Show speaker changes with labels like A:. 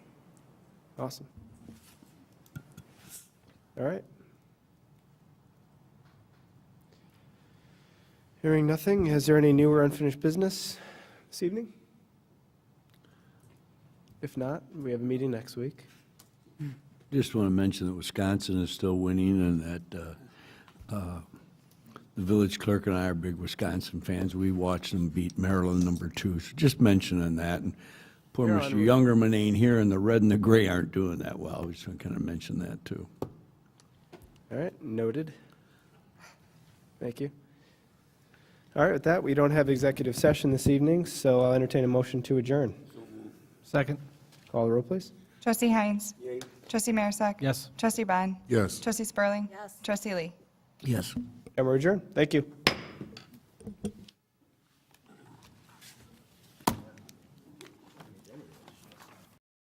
A: Awesome. All right. Hearing nothing, is there any new or unfinished business this evening? If not, we have a meeting next week.
B: Just want to mention that Wisconsin is still winning and that uh, uh, the village clerk and I are big Wisconsin fans. We watched them beat Maryland number two. So Just mentioning that. And Poor
A: They're
B: Mr.
A: on-
B: Youngerman ain't here and the red and the gray aren't doing that well. We just want to kind of mention that too.
A: All right, noted. Thank you. All right, with that, we don't have executive session this evening, so I'll entertain a motion to adjourn.
C: Second.
A: Call the roll, please.
D: Trustee Heinz. Trustee Marisak.
C: Yes.
D: Trustee Bond.
E: Yes.
D: Trustee Spurling. Yes. Trustee Lee.
B: Yes.
A: And we're adjourned. Thank you.